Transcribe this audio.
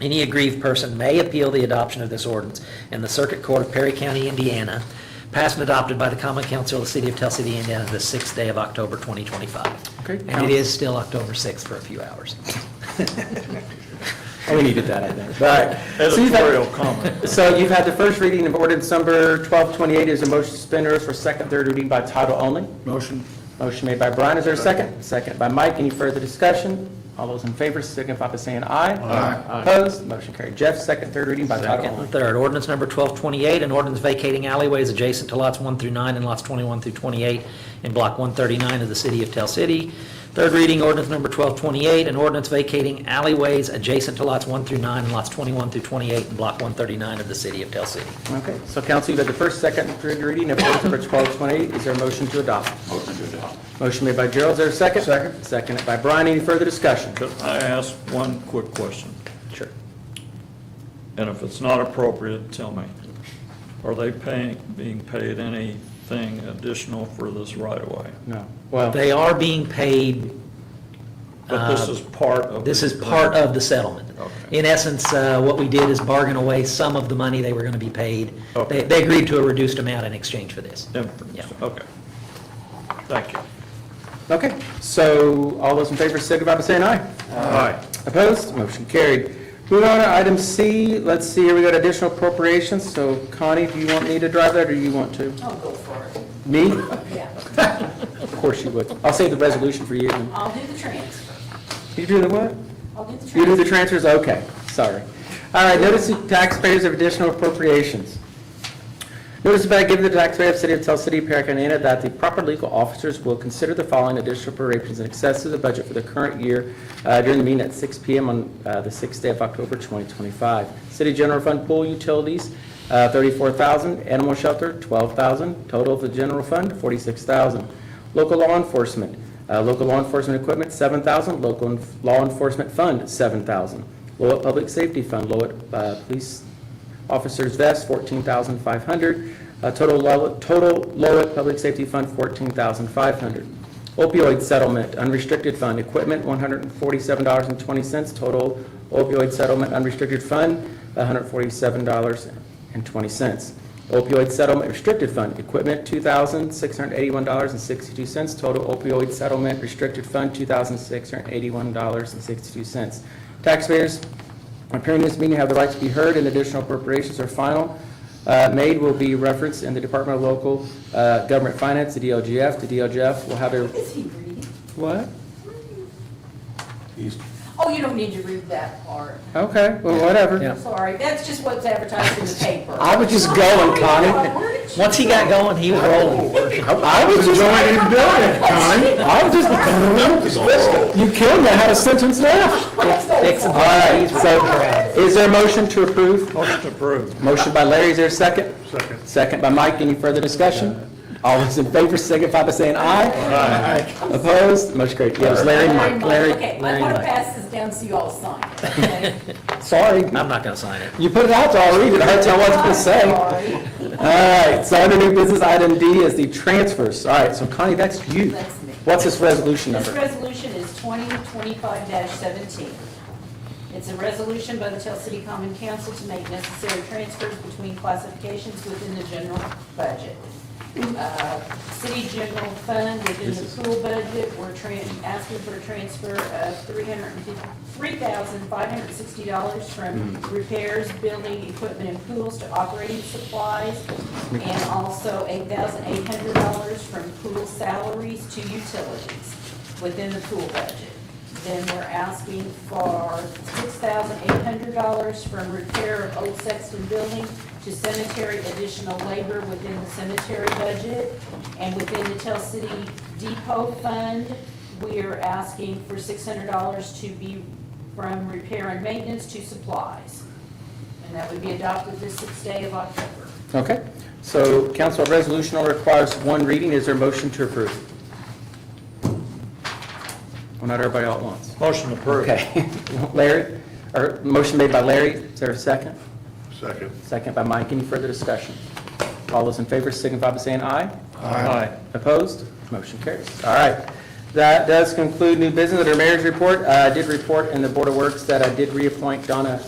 Any aggrieved person may appeal the adoption of this ordinance in the Circuit Court of Perry County, Indiana, passed and adopted by the Common Council of the City of Tell City, Indiana, the sixth day of October 2025. Okay. And it is still October 6th for a few hours. Oh, we needed that, I think. All right. So you've had- Editorial comment. So you've had the first reading of ordinance number 1228. Is a motion to suspend rules for second, third reading by title only? Motion. Motion made by Brian. Is there a second? Second by Mike. Any further discussion? All those in favor signify by saying aye. Aye. Opposed? Motion carried. Jeff, second, third reading by title Second only. and third, ordinance number 1228, an ordinance vacating alleyways adjacent to lots 1 through 9 and lots 21 through 28 in Block 139 of the City of Tell City. Third reading, ordinance number 1228, an ordinance vacating alleyways adjacent to lots 1 through 9 and lots 21 through 28 in Block 139 of the City of Tell City. Okay, so council, you've had the first, second, and third reading of ordinance number 1228. Is there a motion to adopt? Motion to adopt. Motion made by Gerald. Is there a second? Second. Seconded by Brian. Any further discussion? Could I ask one quick question? Sure. And if it's not appropriate, tell me. Are they paying, being paid anything additional for this right-of-way? No. Well, They are being paid, But this is part of. Uh, this the is part of the settlement. Okay. In essence, uh, what we did is bargain away some of the money they were going to be paid. They Okay. they agreed to a reduced amount in exchange for this. Yeah. Inference, okay. Thank you. okay, so all those in favor signify by saying aye. Aye. Opposed? Motion carried. Moving on to item C, let's see, here we got additional appropriations, so Connie, do you want me to drive that, or you want to? I'll go for it, Me? yeah. Of course you would. I'll save the resolution for you. I'll do the transfer. You do the what? I'll do the transfer. You do the transfers, okay, sorry. All right, notice to taxpayers of additional appropriations. Notice about giving the taxpayer of City of Tell City, Perry County, Indiana, that the proper legal officers will consider the following additional appropriations in excess of the budget for the current year uh, during the meeting at 6 PM on uh, the sixth day of October 2025. City General Fund Pool Utilities, uh, 34000 Animal Shelter, 12000 Total of the General Fund, 46000 Local Law Enforcement, uh, Local Law Enforcement Equipment, 7000 Local en- Law Enforcement Fund, 7000 Lowell Public Safety Fund, Lowell uh, Police Officers vest, fourteen thousand five hundred. Uh, Total Lowell, total Lowell Public Safety Fund, fourteen thousand five hundred. Opioid settlement, unrestricted fund, equipment, one hundred and forty-seven dollars and twenty cents. Total opioid settlement, unrestricted fund, one hundred forty-seven dollars and twenty cents. Opioid settlement restricted fund, equipment, two thousand six hundred eighty-one dollars and sixty-two cents. Total opioid settlement restricted fund, two thousand six hundred eighty-one dollars and sixty-two cents. Taxpayers, Appearing in this meeting have the right to be heard, and additional appropriations or final uh, made will be referenced in the Department of Local uh, Government Finance, the DLGF. The DLGF will have a, Is he reading? what? Oh, you don't need to read that part. Okay, well, Yeah. whatever. Sorry, that's just what's advertised in the paper. I was just going, Connie. Where did you- Once he got going, he was Oh, rolling. I was just enjoying him doing it, Connie. I was just, you killed me, I had a sentence left. Fix All him. right, so is there a motion to approve? Motion approved. Motion by Larry, is there a second? Second. Second by Mike, any further discussion? All those in favor signify by saying aye. Aye. Opposed? Motion carried. Yeah, it was Larry and Mike. Okay, Larry, I'm Larry, gonna Mike. pass this down so you all sign it, okay? Sorry, I'm not going to sign it. you put it out to all read it, I heard y'all wasn't gonna say. All Sorry, right, so under new business, item D is the transfers. All right, so Connie, that's you. That's me. What's this resolution This number? resolution is 2025-17. It's a resolution by the Tell City Common Council to make necessary transfers between classifications within the general budget. Uh, City general fund within the pool budget, we're tran- asking for a transfer of $3,560 from repairs, building, equipment, and pools to operating supplies, and also $8,800 from pool salaries to utilities within the pool budget. Then we're asking for six thousand eight hundred dollars from repair of old Sexton building to cemetery additional labor within the cemetery budget. And within the Tell City Depot Fund, we are asking for six hundred dollars to be from repair and maintenance to supplies. And that would be adopted this sixth day of October. Okay, so council, a resolution only requires one reading. Is there a motion to approve? Well, not everybody all at once. Motion approved. Okay, Larry, or motion made by Larry, is there a second? Second. Second by Mike, any further discussion? All those in favor signify by saying aye. Aye. Opposed? Motion carries. All right, that does conclude new business, under mayor's report, uh, I did report in the Board of Works that I did reappoint Donna